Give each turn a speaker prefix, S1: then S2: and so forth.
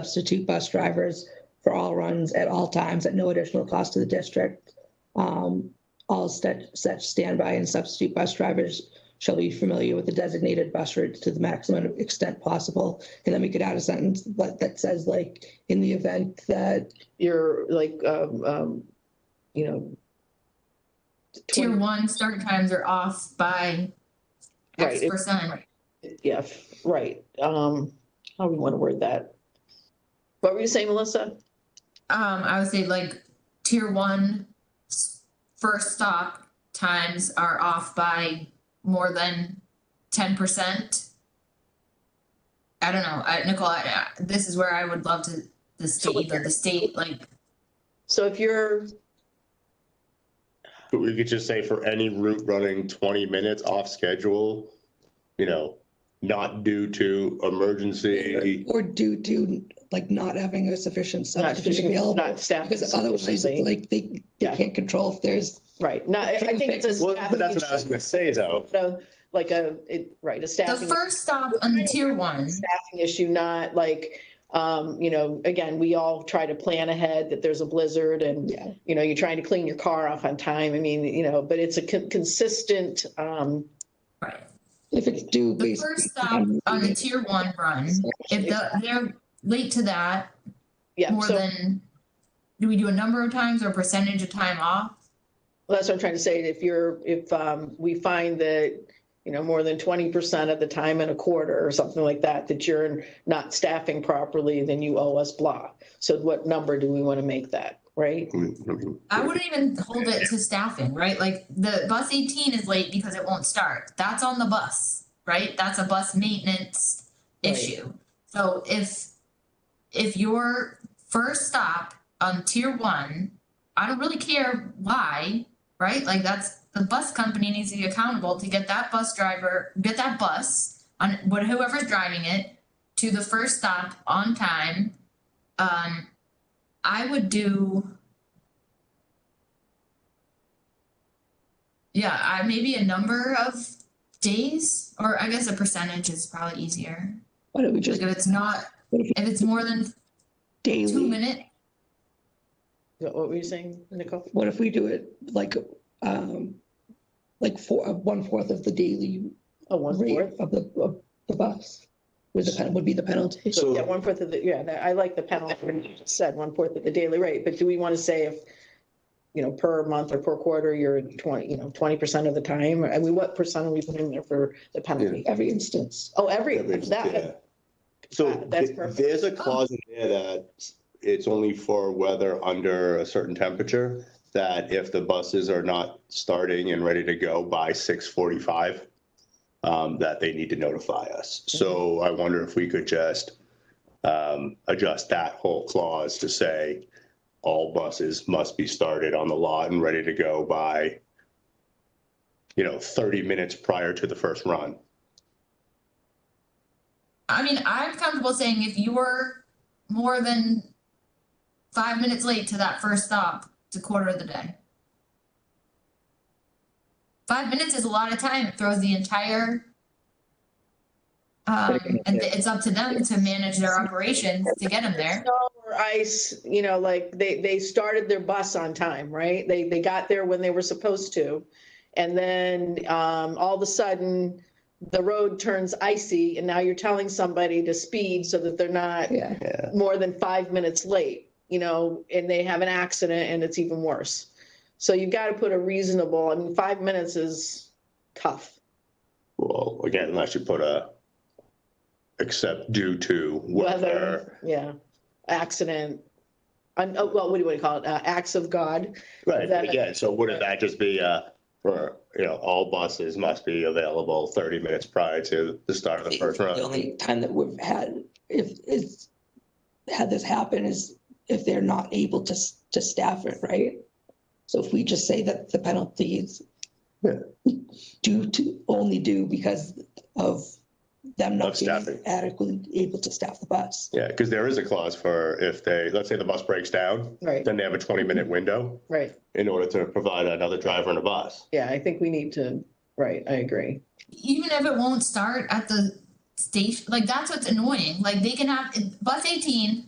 S1: substitute bus drivers for all runs at all times at no additional cost to the district. Um, All such such standby and substitute bus drivers shall be familiar with the designated bus routes to the maximum extent possible. And then we could add a sentence that that says like, in the event that,
S2: your like, um, um, you know.
S3: Tier
S2: 20
S3: one start times are off by
S2: Right,
S3: X
S2: it's-
S3: percent.
S2: Yeah, f- right, um, how we want to word that? What were you saying, Melissa?
S3: Um, I would say like tier one s- first stop times are off by more than ten percent. I don't know, I, Nicole, I, I- this is where I would love to, the state, that the state, like,
S2: So if you're,
S4: But we could just say for any route running twenty minutes off schedule, you know, not due to emergency.
S1: or due to like not having a sufficient
S2: not,
S1: substitute available.
S2: not staff.
S1: Because otherwise, it's
S2: sufficiency.
S1: like they, they
S2: Yeah.
S1: can't control if there's,
S2: Right, no, I I think it's a
S4: Well,
S2: staff.
S4: but that's what I was gonna say though.
S2: No, like a, it, right, a
S3: the
S2: staffing.
S3: first stop on tier one,
S2: staffing issue, not like, um, you know, again, we all try to plan ahead that there's a blizzard and,
S1: yeah,
S2: you know, you're trying to clean your car off on time. I mean, you know, but it's a con- consistent, um,
S3: right?
S1: if it's due.
S3: The
S1: basically
S3: first stop on a tier one run, if the, they're late to that,
S2: yeah,
S3: more
S2: so
S3: than, do we do a number of times or percentage of time off?
S2: that's what I'm trying to say. If you're, if, um, we find that, you know, more than twenty percent of the time in a quarter or something like that, that you're not staffing properly, then you owe us blah. So what number do we want to make that, right?
S3: I wouldn't even hold it to staffing, right? Like the bus eighteen is late because it won't start. That's on the bus, right? That's a bus maintenance
S2: Right.
S3: issue. So if, if your first stop on tier one, I don't really care why, right? Like that's, the bus company needs to be accountable to get that bus driver, get that bus on, what, whoever's driving it to the first stop on time. Um, I would do. Yeah, I maybe a number of days, or I guess a percentage is probably easier.
S1: Why don't we
S3: Like
S1: just
S3: if it's not, if it's more than two
S1: daily,
S3: minute,
S2: Is that what were you saying, Nicole?
S1: what if we do it like, um, like four, one fourth of the daily
S2: Oh, one fourth?
S1: rate of the, of the bus? Would the, pen- would be the penalty?
S2: So, yeah, one fourth of the, yeah, that- I like the penalty, when you just said one fourth of the daily rate, but do we want to say if, you know, per month or per quarter, you're twenty, you know, twenty percent of the time, I mean, what percent are we putting in there for the penalty?
S1: Every instance,
S2: Oh, every,
S4: That makes- yeah.
S2: that,
S4: So
S2: that- that's
S4: th-
S2: perfect.
S4: there's a clause in there that it's only for weather under a certain temperature. That if the buses are not starting and ready to go by six forty-five, um, that they need to notify us.
S2: Mm-hmm.
S4: So I wonder if we could just um, adjust that whole clause to say all buses must be started on the lot and ready to go by, you know, thirty minutes prior to the first run.
S3: I mean, I'm comfortable saying if you were more than five minutes late to that first stop, it's a quarter of the day. Five minutes is a lot of time. It throws the entire. Um, and it's up to them to manage their operations to get them there.
S2: snow or ice, you know, like, they, they started their bus on time, right? They, they got there when they were supposed to. And then, um, all of a sudden, the road turns icy, and now you're telling somebody to speed so that they're not
S1: yeah.
S4: Yeah.
S2: more than five minutes late, you know, and they have an accident and it's even worse. So you've got to put a reasonable, I mean, five minutes is tough.
S4: Well, again, unless you put a, except due to weather.
S2: Weather, yeah, accident. I'm, oh, well, what do you want to call it? Uh, acts of God.
S4: Right, but
S2: That-
S4: again, so wouldn't that just be, uh, for, you know, all buses must be available thirty minutes prior to the start of the first
S1: The
S4: run?
S1: only time that we've had, if, is, had this happen is if they're not able to, s- to staff it, right? So if we just say that the penalty is
S4: Yeah.
S1: due to, only due because of them
S4: Of
S1: not being
S4: staffing.
S1: adequately able to staff the bus.
S4: Yeah, because there is a clause for if they, let's say the bus breaks down,
S2: Right,
S4: then they have a twenty-minute window
S2: right.
S4: in order to provide another driver and a bus.
S2: Yeah, I think we need to, right, I agree.
S3: Even if it won't start at the station, like that's what's annoying. Like they can have bus eighteen